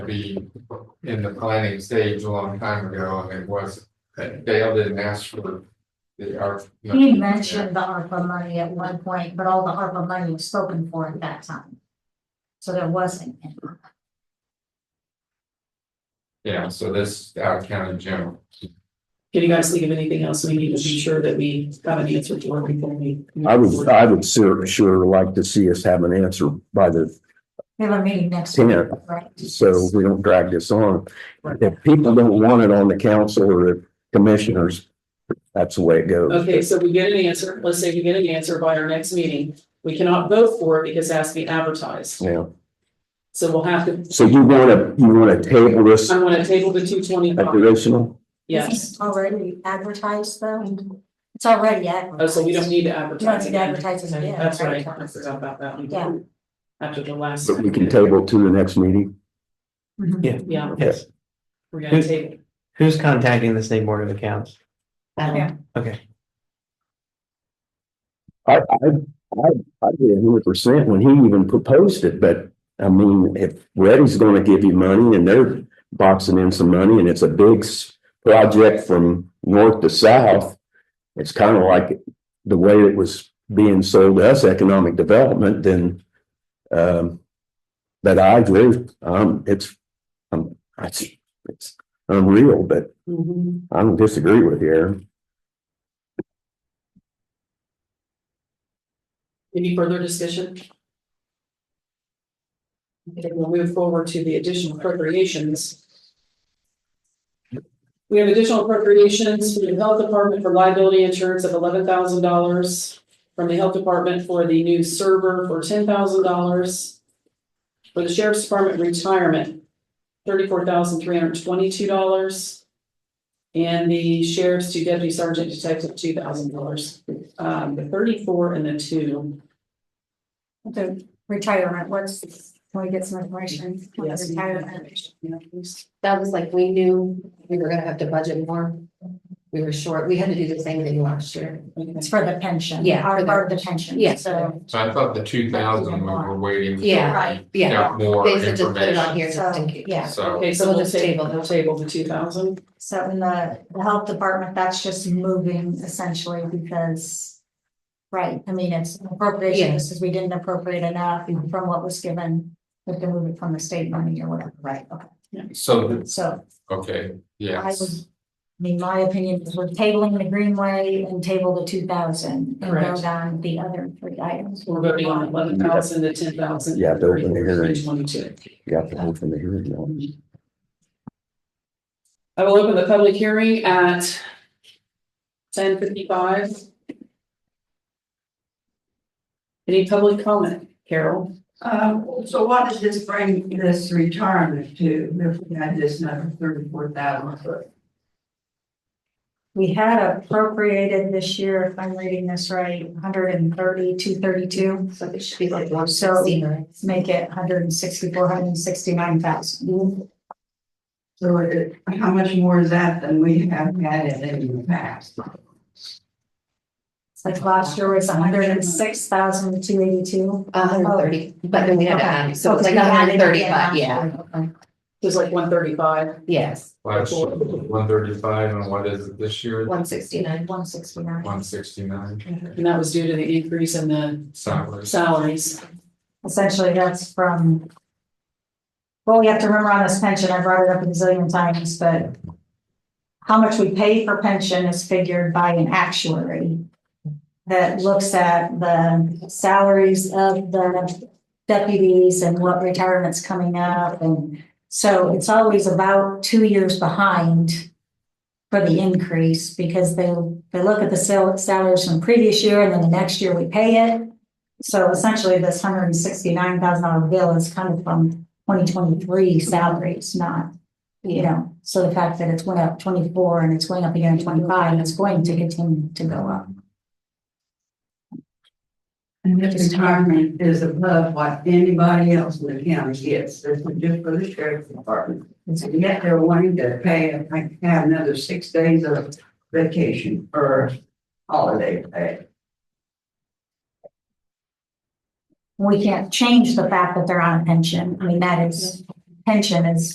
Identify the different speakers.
Speaker 1: be in the planning stage a long time ago, and it was, uh, Dale didn't ask for the art.
Speaker 2: He mentioned the ARPA money at one point, but all the ARPA money was spoken for at that time. So there wasn't. any.
Speaker 1: Yeah, so this out of county general,
Speaker 3: Can you guys think of anything else we need to be sure that we have an answer for before we?
Speaker 4: I would, I would sure, sure like to see us have an answer by the
Speaker 2: We have a meeting next week,
Speaker 4: tenth,
Speaker 2: right?
Speaker 4: so we don't drag this on. If people don't want it on the council or the commissioners, that's the way it goes.
Speaker 3: Okay, so we get an answer. Let's say we get an answer by our next meeting. We cannot vote for it because it has to be advertised.
Speaker 4: Yeah,
Speaker 3: So we'll have to,
Speaker 4: so you wanna, you wanna table this uh,
Speaker 3: I want to table the two twenty
Speaker 4: at
Speaker 3: five.
Speaker 4: original?
Speaker 3: Yes.
Speaker 2: It's Already advertised though. It's already advertised.
Speaker 3: Oh, so we don't need to
Speaker 2: You don't
Speaker 3: advertise.
Speaker 2: need to
Speaker 3: again.
Speaker 2: advertise it
Speaker 3: Okay,
Speaker 2: again.
Speaker 3: That's right. I
Speaker 2: Advertise.
Speaker 3: forgot about that one.
Speaker 2: Yeah.
Speaker 3: After the last.
Speaker 4: But we can table to the next meeting.
Speaker 2: Mhm.
Speaker 3: Yeah,
Speaker 5: Yes,
Speaker 3: we're gonna table. Um,
Speaker 5: who's contacting the state board of accounts?
Speaker 2: Yeah.
Speaker 5: Okay,
Speaker 4: I, I, I, I did hundred percent when he even proposed it, but I mean, if Reddy's gonna give you money and they're boxing in some money and it's a big s- project from north to south, it's kind of like the way it was being sold to us, economic development, then um, but I agree, um, it's, um, I, it's unreal, but
Speaker 3: Mhm.
Speaker 4: I don't disagree with you. Aaron.
Speaker 3: Any further discussion? Okay, we'll move forward to the additional appropriations. We have additional appropriations from the health department for liability insurance of eleven thousand dollars. From the health department for the new server for ten thousand dollars. For the sheriff's department retirement, thirty-four thousand three hundred twenty-two dollars. And the sheriff's to deputy sergeant detective, two thousand dollars. Um, the thirty-four and the two.
Speaker 2: The retirement, what's, can we get some information? on the
Speaker 3: Yes.
Speaker 2: retirement?
Speaker 6: That was like, we knew we were gonna have to budget more. We were short, we had to do the same thing last year.
Speaker 2: It's for the pension.
Speaker 6: Yeah, for
Speaker 2: Our
Speaker 6: the-
Speaker 2: part of the pension.
Speaker 6: Yeah.
Speaker 2: So,
Speaker 1: so I thought the two thousand we were waiting. for
Speaker 6: Yeah.
Speaker 2: Right.
Speaker 6: Yeah,
Speaker 1: More
Speaker 6: they said just put it
Speaker 1: information,
Speaker 6: on here just in case.
Speaker 2: yeah.
Speaker 1: so
Speaker 3: Okay, so we'll just table,
Speaker 6: that.
Speaker 3: we'll table the two thousand.
Speaker 2: so in the, the health department, that's just moving essentially because. Right, I mean, it's appropriation,
Speaker 6: Yeah.
Speaker 2: this is, we didn't appropriate enough from what was given, we can move it from the state money or whatever, right, okay,
Speaker 1: so, the-
Speaker 2: so
Speaker 1: okay,
Speaker 2: I would.
Speaker 1: yes,
Speaker 2: I mean, my opinion is we're tabling the Greenway and table the two thousand and go
Speaker 3: Correct.
Speaker 2: down the other three items.
Speaker 3: We're voting on eleven thousand to ten thousand.
Speaker 4: You have to open the hearing.
Speaker 3: Twenty-two.
Speaker 4: You have to hold from the hearing. you know.
Speaker 3: I will open the public hearing at ten fifty-five. Any public comment, Carol?
Speaker 7: Um, so what does this bring this retirement to, if we had this number thirty-four thousand?
Speaker 2: We had appropriated this year, if I'm reading this right, 130, 232.
Speaker 6: So it should be like one
Speaker 2: So-
Speaker 6: sixteen, right?
Speaker 2: make it hundred and sixty-four, hundred and sixty-nine thousand.
Speaker 7: So it, how much more is that than we have had it in the past?
Speaker 2: It's like last year was 106,282. hundred and six thousand, two eighty-two.
Speaker 6: A hundred and thirty, but then we had to add, so it's like
Speaker 2: Okay.
Speaker 6: a hundred and thirty, but yeah,
Speaker 3: There's like one thirty-five.
Speaker 6: yes,
Speaker 1: last year, one thirty-five, and what is it this year,
Speaker 6: one sixty-nine.
Speaker 2: One sixty-nine.
Speaker 1: one sixty-nine,
Speaker 3: And that was due to the increase in the
Speaker 1: salaries.
Speaker 3: salaries.
Speaker 2: Essentially, that's from. Well, we have to remember on this pension, I brought it up a zillion times, but. How much we pay for pension is figured by an actuary. That looks at the salaries of the deputies and what retirement's coming up and. So it's always about two years behind. For the increase because they, they look at the sal- salaries from previous year and then the next year we pay it. So essentially, this hundred and sixty-nine thousand dollar bill is coming from twenty twenty-three salaries, not, you know, so the fact that it's went up twenty-four and it's going up again in twenty-five, and it's going to continue to go up.
Speaker 7: And this retirement is above what anybody else in the county gets, this is just for the sheriff's department. And yet they're wanting to pay, like, have another six days of vacation or holiday pay.
Speaker 2: We can't change the fact that they're on a pension. I mean, that is, pension is